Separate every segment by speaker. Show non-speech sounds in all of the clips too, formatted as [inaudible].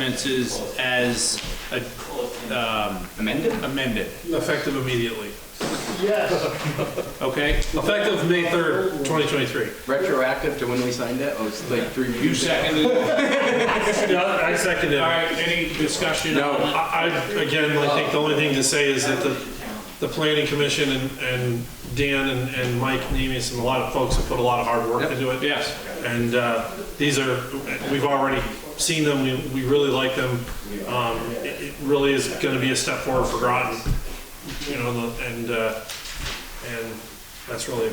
Speaker 1: ordinances as uh, um,
Speaker 2: amended?
Speaker 1: amended,
Speaker 3: Effective immediately.
Speaker 4: Yes,
Speaker 1: okay?
Speaker 3: Effective May 3rd, 2023.
Speaker 2: Retroactive to when we signed it? Oh, it's like three
Speaker 1: You
Speaker 2: meetings ago.
Speaker 1: seconded it?
Speaker 3: Yeah, I second it.
Speaker 1: All right, any discussion?
Speaker 2: No.
Speaker 3: I, I, again, I think the only thing to say is that the, the planning commission and, and Dan and, and Mike Nemes and a lot of folks have put a lot of hard work into it.
Speaker 1: Yes.
Speaker 3: And, uh, these are, we've already seen them, we, we really like them. Um, it, it really is gonna be a step forward for Groton, you know, the- and, uh, and that's really,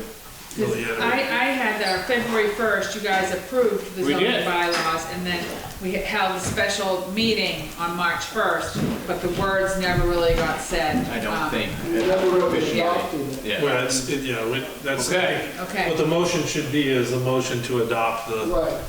Speaker 3: really it.
Speaker 5: I, I had our February first, you guys approved the
Speaker 1: We did.
Speaker 5: zoning bylaws, and then we held a special meeting on March first, but the words never really got said.
Speaker 2: I don't
Speaker 5: Um,
Speaker 2: think.
Speaker 4: we never really
Speaker 2: officially.
Speaker 4: adopted it.
Speaker 2: Yeah.
Speaker 3: Well, it's, it- yeah, we- that's,
Speaker 1: Okay.
Speaker 3: what
Speaker 5: Okay,
Speaker 3: the motion should be is a motion to adopt the.
Speaker 4: Right,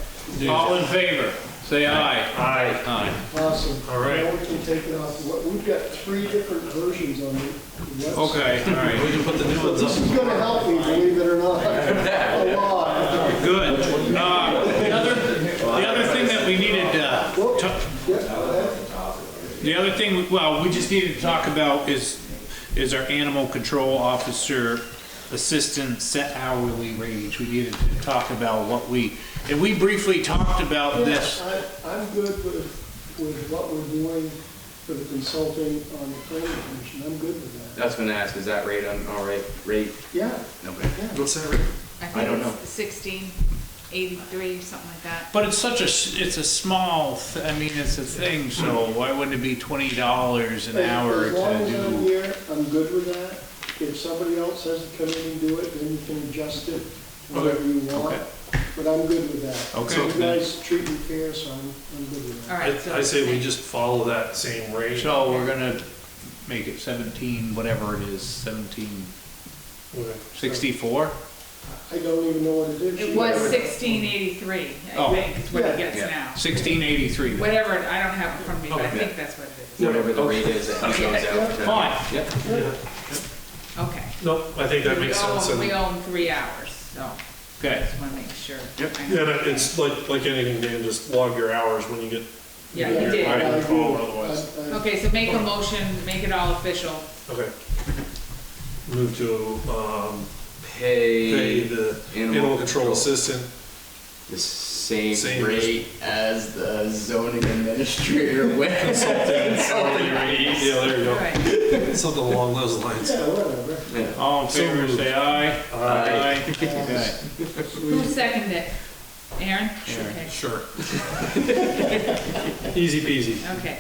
Speaker 1: All in favor, say aye.
Speaker 3: Aye.
Speaker 1: Aye.
Speaker 4: awesome.
Speaker 3: All right.
Speaker 4: Now we can take it off, What- we've got three different versions on the website.
Speaker 1: Okay, all
Speaker 3: We
Speaker 1: right,
Speaker 3: can put the new ones
Speaker 4: This
Speaker 3: up.
Speaker 4: is gonna help me, believe it or
Speaker 1: [laughs]
Speaker 4: not, a lot.
Speaker 1: good. Uh, The other, the other thing that we needed uh, to, to-
Speaker 4: Yeah, that-
Speaker 1: The other thing, well, we just needed to talk about is, is our animal control officer assistant set hourly wage. We needed to talk about what we, and we briefly talked about this.
Speaker 4: I- I'm good with, with what we're doing for the consulting on the planning commission, I'm good with that.
Speaker 2: That's when I asked, is that rate on, all right, rate?
Speaker 4: Yeah,
Speaker 2: No, but
Speaker 4: yeah.
Speaker 3: What's that?
Speaker 5: I
Speaker 2: I don't
Speaker 5: think
Speaker 2: know.
Speaker 5: it's sixteen eighty-three, something like that.
Speaker 1: But it's such a, s- it's a small, th- I mean, it's a thing, so why wouldn't it be twenty dollars an
Speaker 4: As-
Speaker 1: hour
Speaker 4: As long
Speaker 1: to
Speaker 4: as I'm
Speaker 1: do?
Speaker 4: here, I'm good with that. If somebody else has to come in and do it, then you can adjust it whatever you want.
Speaker 1: Okay.
Speaker 4: But I'm good with that.
Speaker 1: Okay.
Speaker 4: You guys treat me fair, so I'm, I'm good with
Speaker 5: All
Speaker 4: that.
Speaker 3: I,
Speaker 5: right. so
Speaker 3: I say we just follow that same rate.
Speaker 1: So we're gonna make it seventeen, whatever it is, seventeen
Speaker 3: Okay.
Speaker 1: sixty-four?
Speaker 4: I don't even know what it is.
Speaker 5: It was sixteen eighty-three,
Speaker 1: Oh.
Speaker 5: I think, is what it
Speaker 4: Yeah.
Speaker 5: gets
Speaker 2: Yeah.
Speaker 5: now.
Speaker 1: Sixteen eighty-three.
Speaker 5: Whatever, I don't have it from me, but I
Speaker 3: Okay.
Speaker 5: think that's what it is.
Speaker 2: whatever the rate is that he goes out.
Speaker 1: Fine.
Speaker 2: Yep.
Speaker 3: Yeah.
Speaker 5: Okay.
Speaker 3: Nope, I think that makes
Speaker 5: We own-
Speaker 3: sense. and-
Speaker 5: We own three hours, so
Speaker 1: Okay.
Speaker 5: just wanna make sure.
Speaker 2: Yep.
Speaker 5: I know.
Speaker 3: Yeah, but it's like, like anything, Dan, just log your hours when you get.
Speaker 5: Yeah, you
Speaker 3: your
Speaker 5: did.
Speaker 3: line
Speaker 4: I
Speaker 3: of
Speaker 4: agree.
Speaker 3: call, otherwise.
Speaker 4: I- I-
Speaker 5: Okay, so make a motion, make it all official.
Speaker 3: Okay. Move to, um, pay
Speaker 2: Pay
Speaker 3: the
Speaker 2: animal
Speaker 3: animal control
Speaker 2: control.
Speaker 3: assistant.
Speaker 2: the same
Speaker 3: Same
Speaker 2: rate as the zoning administrator [laughs] went. Consulting rate.
Speaker 3: Yeah, there you go.
Speaker 5: All right.
Speaker 3: Something along those lines.
Speaker 4: Yeah, whatever.
Speaker 2: Yeah.
Speaker 1: All in
Speaker 3: So
Speaker 1: favor,
Speaker 3: moved.
Speaker 1: say aye.
Speaker 2: Aye.
Speaker 1: Okay.
Speaker 5: Who seconded it? Aaron? Okay.
Speaker 3: Sure. [laughs] Easy peasy.
Speaker 5: Okay,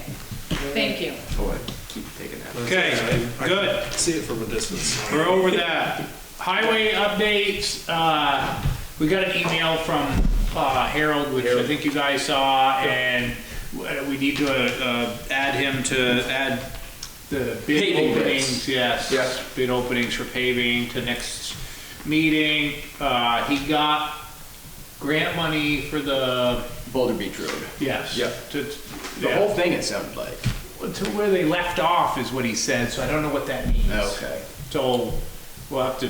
Speaker 5: thank you.
Speaker 2: Oh, I keep taking that.
Speaker 1: Okay,
Speaker 3: I- I
Speaker 1: good.
Speaker 3: can See it from a distance.
Speaker 1: We're over that. Highway updates, uh, we got an email from, uh, Harold, which I think you guys saw, and uh, we need to, uh, add him to add the bid
Speaker 2: Paving bids.
Speaker 1: openings, yes.
Speaker 2: Yeah.
Speaker 1: Bid openings for paving to next meeting. Uh, he got grant money for the,
Speaker 2: Boulder Beach Road.
Speaker 1: yes.
Speaker 2: Yeah.
Speaker 1: To,
Speaker 2: The
Speaker 1: yeah.
Speaker 2: whole thing it sounded like.
Speaker 1: to where they left off is what he said, so I don't know what that means.
Speaker 2: Okay.
Speaker 1: So we'll have to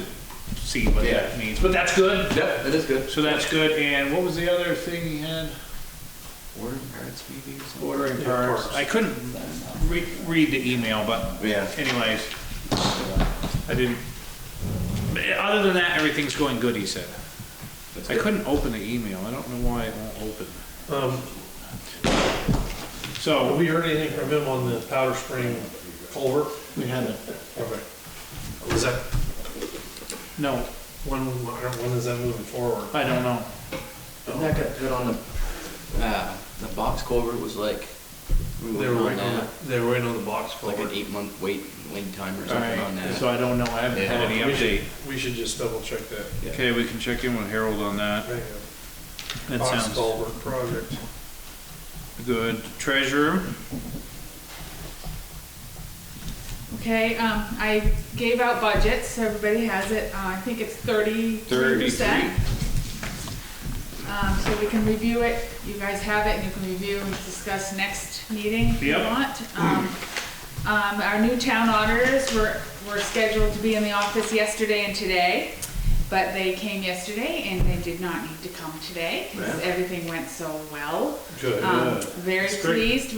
Speaker 1: see what
Speaker 2: Yeah.
Speaker 1: that means, but that's good.
Speaker 2: Yep, that is good.
Speaker 1: So that's good, and what was the other thing he had?
Speaker 2: Order parents maybe or something.
Speaker 1: Ordering
Speaker 3: Yeah,
Speaker 1: parts.
Speaker 3: parts.
Speaker 1: I couldn't re- read the email, but
Speaker 2: Yeah.
Speaker 1: anyways, I didn't. Other than that, everything's going good, he said.
Speaker 2: That's
Speaker 1: I
Speaker 2: good.
Speaker 1: couldn't open the email, I don't know why it won't open.
Speaker 3: Um, Have
Speaker 1: So,
Speaker 3: we heard anything from him on the Powder Spring culvert?
Speaker 1: we had a,
Speaker 3: Okay. Was that,
Speaker 1: no,
Speaker 3: when, when is that moving forward?
Speaker 1: I don't know.
Speaker 2: And that got put on the, uh, the box culvert was like, we
Speaker 3: They
Speaker 2: were
Speaker 3: were
Speaker 2: on
Speaker 3: waiting on,
Speaker 2: that,
Speaker 3: the- they were waiting on the box
Speaker 2: like an
Speaker 3: culvert.
Speaker 2: eight month wait, wait time or
Speaker 1: All
Speaker 2: something on
Speaker 1: right, so I
Speaker 2: that.
Speaker 1: don't know, I haven't
Speaker 2: Yeah.
Speaker 1: had any
Speaker 3: We should-
Speaker 1: update.
Speaker 3: We should just double check that.
Speaker 1: Okay, we can check in with Harold on that.
Speaker 3: Right.
Speaker 1: That
Speaker 3: Box
Speaker 1: sounds
Speaker 3: culvert project.
Speaker 1: good. Treasurer?
Speaker 5: Okay, um, I gave out budgets, so everybody has it, uh, I think it's thirty-three percent. Um, so we can review it, you guys have it, and you can review and discuss next meeting if you
Speaker 1: Yep.
Speaker 5: want. Um, um, our new town auditors were, were scheduled to be in the office yesterday and today, But they came yesterday and they did not need to come today because
Speaker 2: Right.
Speaker 5: everything went so well.
Speaker 6: Good.
Speaker 5: Um, Very
Speaker 3: That's great.
Speaker 5: pleased